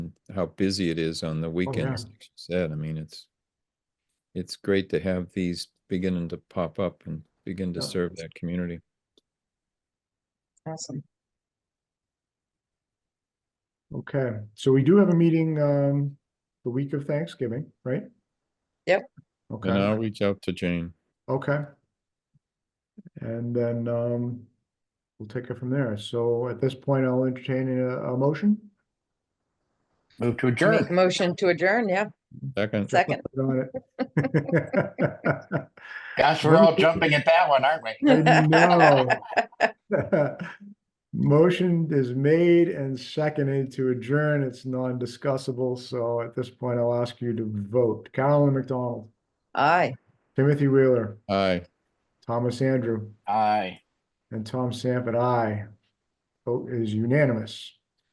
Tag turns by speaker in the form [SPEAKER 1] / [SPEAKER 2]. [SPEAKER 1] how busy it is on the weekends, like you said, I mean, it's. It's great to have these beginning to pop up and begin to
[SPEAKER 2] Yeah.
[SPEAKER 1] serve that community.
[SPEAKER 3] Awesome.
[SPEAKER 2] Okay, so we do have a meeting, um, the week of Thanksgiving, right?
[SPEAKER 3] Yep.
[SPEAKER 1] And I'll
[SPEAKER 2] Okay,
[SPEAKER 1] reach out to Jane.
[SPEAKER 2] okay. And then, um, we'll take it from there. So at this point, I'll entertain a, a motion.
[SPEAKER 4] Move to
[SPEAKER 3] Make a
[SPEAKER 4] adjourn.
[SPEAKER 3] motion to adjourn, yeah,
[SPEAKER 1] Second,
[SPEAKER 3] second.
[SPEAKER 2] Put on it.
[SPEAKER 4] Gosh, we're all jumping at that one, aren't we?
[SPEAKER 2] I know. Motion is made and seconded to adjourn. It's non-discussable, so at this point, I'll ask you to vote. Carolyn McDonald,
[SPEAKER 3] Aye,
[SPEAKER 2] Timothy Wheeler,
[SPEAKER 1] aye.
[SPEAKER 2] Thomas Andrew,
[SPEAKER 4] Aye.
[SPEAKER 2] and Tom Sanford, aye. Vote is unanimous.